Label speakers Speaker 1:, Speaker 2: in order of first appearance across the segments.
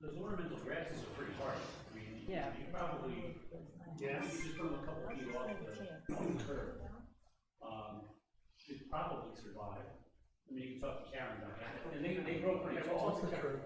Speaker 1: Those ornamental grasses are pretty harsh. I mean, you-
Speaker 2: Yeah.
Speaker 1: You probably, yeah, you just put them a couple feet off the, off the curb. Um, it'd probably survive. I mean, you can talk to Karen about that. And they, they grow pretty tall.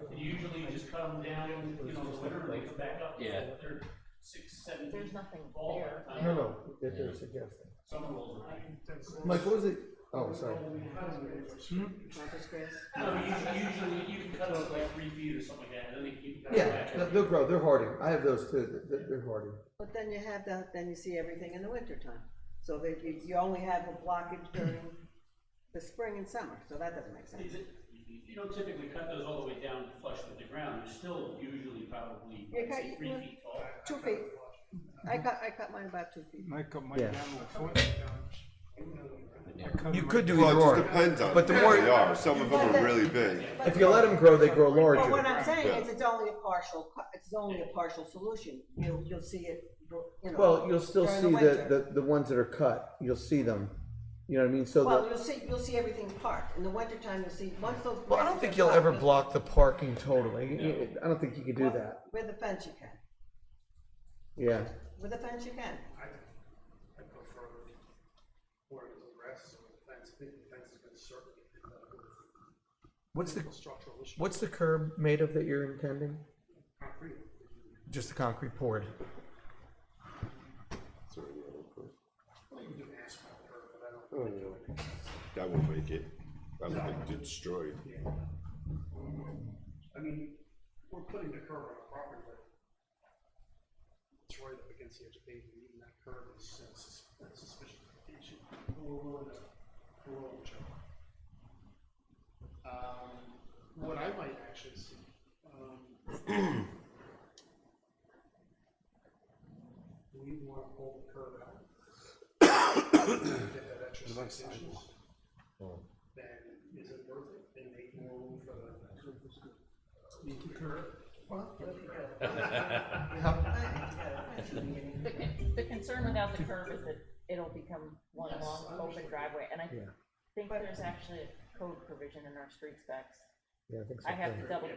Speaker 1: And you usually just cut them down, you know, in the winter, and they come back up.
Speaker 3: Yeah.
Speaker 1: They're six, seven
Speaker 4: There's
Speaker 1: feet
Speaker 4: nothing
Speaker 1: tall.
Speaker 4: there.
Speaker 1: by the
Speaker 5: I
Speaker 1: time
Speaker 5: don't know if they're suggesting.
Speaker 1: Summer rolls around.
Speaker 5: Mike, what was it? Oh, sorry.
Speaker 4: Marcus Grace.
Speaker 1: No, usually, usually you can cut them like three feet or something like that, and then they keep. cutting
Speaker 5: Yeah,
Speaker 1: back.
Speaker 5: no, they'll grow, they're hardy. I have those too, they're, they're hardy.
Speaker 6: But then you have that, then you see everything in the wintertime. So that you, you only have a blockage during the spring and summer, so that doesn't make sense.
Speaker 1: Is it- you- You don't typically cut those all the way down flush with the ground, they're still usually probably,
Speaker 6: You
Speaker 1: I'd
Speaker 6: cut-
Speaker 1: say, three feet tall.
Speaker 6: Two feet. I cut, I cut mine about two feet.
Speaker 7: I cut my
Speaker 5: Yeah.
Speaker 7: down with foot. I cut
Speaker 8: You
Speaker 7: my-
Speaker 8: could do
Speaker 5: Well, it
Speaker 8: either
Speaker 5: just
Speaker 8: or.
Speaker 5: depends on
Speaker 8: But the
Speaker 5: who
Speaker 8: more
Speaker 5: they
Speaker 8: they are, some of them
Speaker 6: But the-
Speaker 8: are really big.
Speaker 5: If you let them grow, they grow
Speaker 6: But what
Speaker 5: larger.
Speaker 6: I'm saying
Speaker 8: Yeah.
Speaker 6: is it's only a partial, cu- it's only a partial solution. You'll, you'll see it, you know.
Speaker 5: Well, you'll still
Speaker 6: during
Speaker 5: see the,
Speaker 6: winter.
Speaker 5: the, the ones that are cut, you'll see them. You know what I mean? So
Speaker 6: Well,
Speaker 5: the,
Speaker 6: you'll see, you'll see everything parked. In the wintertime, you'll see, once those.
Speaker 5: well, I don't
Speaker 6: grasses
Speaker 5: think
Speaker 6: are
Speaker 5: you'll ever
Speaker 6: blocked,
Speaker 5: block the parking totally. I don't think you could do that.
Speaker 6: With a fence you can.
Speaker 5: Yeah.
Speaker 6: With a fence you can.
Speaker 9: I, I prefer more of the rest of the fence, I think the fence is gonna certainly, end up with
Speaker 5: What's the,
Speaker 9: a structural issue,
Speaker 5: what's the curb made of that you're intending?
Speaker 9: concrete.
Speaker 5: Just a concrete poured.
Speaker 9: Well, you can do asphalt curb, but I don't
Speaker 5: Oh,
Speaker 9: think it
Speaker 5: yeah.
Speaker 9: would make sense.
Speaker 8: That will make it, that will make it destroyed.
Speaker 9: I mean, we're putting the curb on our property, but it's right up against the edge of pavement, even that curb is uh, sus- uh, suspicious location. But We're willing to, we're willing to check. Um, what I might actually see, um, we want to pull the curb out. Get that extra six inches. Then is it worth it? Then make more room for the leaky curb?
Speaker 4: The, con- the concern without the curb is that it'll become one
Speaker 9: Yes,
Speaker 4: long
Speaker 9: I
Speaker 4: open
Speaker 9: understand.
Speaker 4: driveway, and I
Speaker 5: Yeah.
Speaker 4: think there's actually a code provision in our street specs.
Speaker 5: Yeah, I think so.
Speaker 4: I have
Speaker 5: too.
Speaker 4: to double,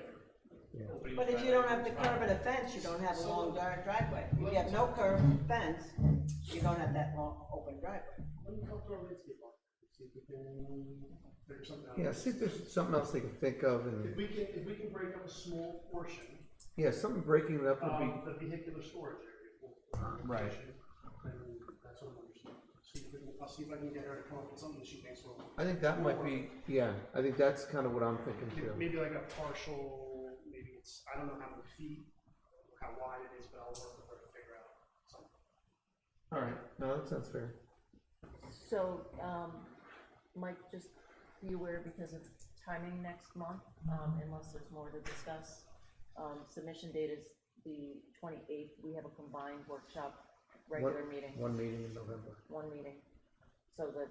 Speaker 1: Opening
Speaker 6: But if you don't have the curb and a fence, you don't have a long dar- driveway. If you have no curb and fence, you don't have that long, open driveway.
Speaker 9: Let me help our landscape architect, see if we can figure something out.
Speaker 5: Yeah, see if there's something else they can think of
Speaker 9: If
Speaker 5: and,
Speaker 9: we can, if we can break up a small portion
Speaker 5: yeah, something breaking it up would be,
Speaker 9: of the vehicular storage area. for- for
Speaker 5: Right.
Speaker 9: protection, Then that's what I'm understanding. See if we can, I'll see if I can get her to come up with something that she thinks will.
Speaker 5: I think that might be, yeah, I think that's kind of what I'm thinking too.
Speaker 9: Maybe like a partial, maybe it's, I don't know how many feet, how wide it is, but I'll work with her to figure out something.
Speaker 5: All right, no, that sounds fair.
Speaker 4: so, um, Mike, just be aware because of timing next month, um, unless there's more to discuss. Um, submission date is the twenty-eighth, we have a combined workshop, regular
Speaker 5: One-
Speaker 4: meeting,
Speaker 5: One meeting in November.
Speaker 4: one meeting, so that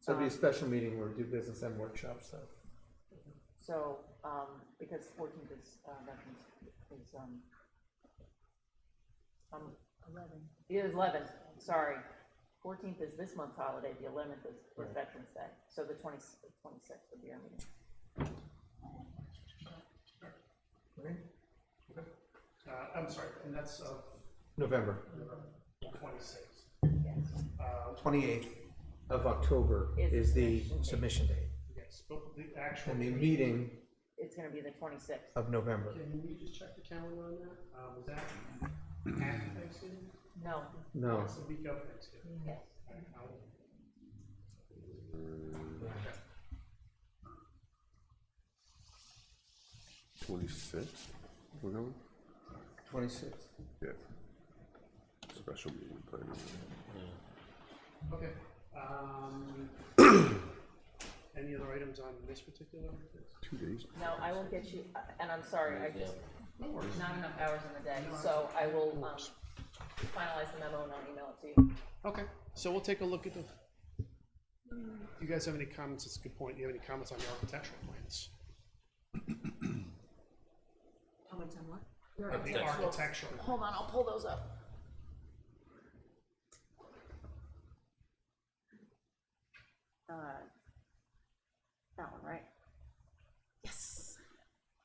Speaker 5: So it'll be
Speaker 4: Um,
Speaker 5: a special meeting where we do business and workshops, so.
Speaker 4: So, um, because fourteenth is, uh, Veterans, is, um, um. Eleven. Yeah, eleventh, sorry. Fourteenth is this month's holiday, the eleventh is, was Veterans Day, so the twenty, twenty-sixth would be our meeting.
Speaker 5: Right?
Speaker 9: Uh, I'm sorry, and that's of
Speaker 5: November,
Speaker 9: twenty-six.
Speaker 4: Yes.
Speaker 9: Uh,
Speaker 5: twenty-eighth of October
Speaker 4: Is
Speaker 5: is the
Speaker 4: submission date.
Speaker 5: submission date,
Speaker 9: yes, but the actual.
Speaker 5: and the meeting
Speaker 4: It's gonna be the twenty-sixth.
Speaker 5: of November.
Speaker 9: Can you just check the calendar on that? Uh, was that after Thanksgiving?
Speaker 4: No,
Speaker 5: No,
Speaker 9: That's the week of Thanksgiving.
Speaker 4: yes.
Speaker 8: Twenty-six, we're going?
Speaker 5: twenty-sixth.
Speaker 8: Yeah. Special meeting planning.
Speaker 9: Okay, um, any other items on this particular?
Speaker 8: Two days.
Speaker 4: No, I will get you, uh, and I'm sorry, I just,
Speaker 9: No worries.
Speaker 4: not enough hours in the day, so I will, um, finalize the memo and I'll email it to you.
Speaker 9: Okay, so we'll take a look at the, you guys have any comments, it's a good point, Do you have any comments on the architectural plans?
Speaker 6: Comments on what?
Speaker 9: The architectural,
Speaker 4: Hold on, I'll pull those up. Uh, That one, right?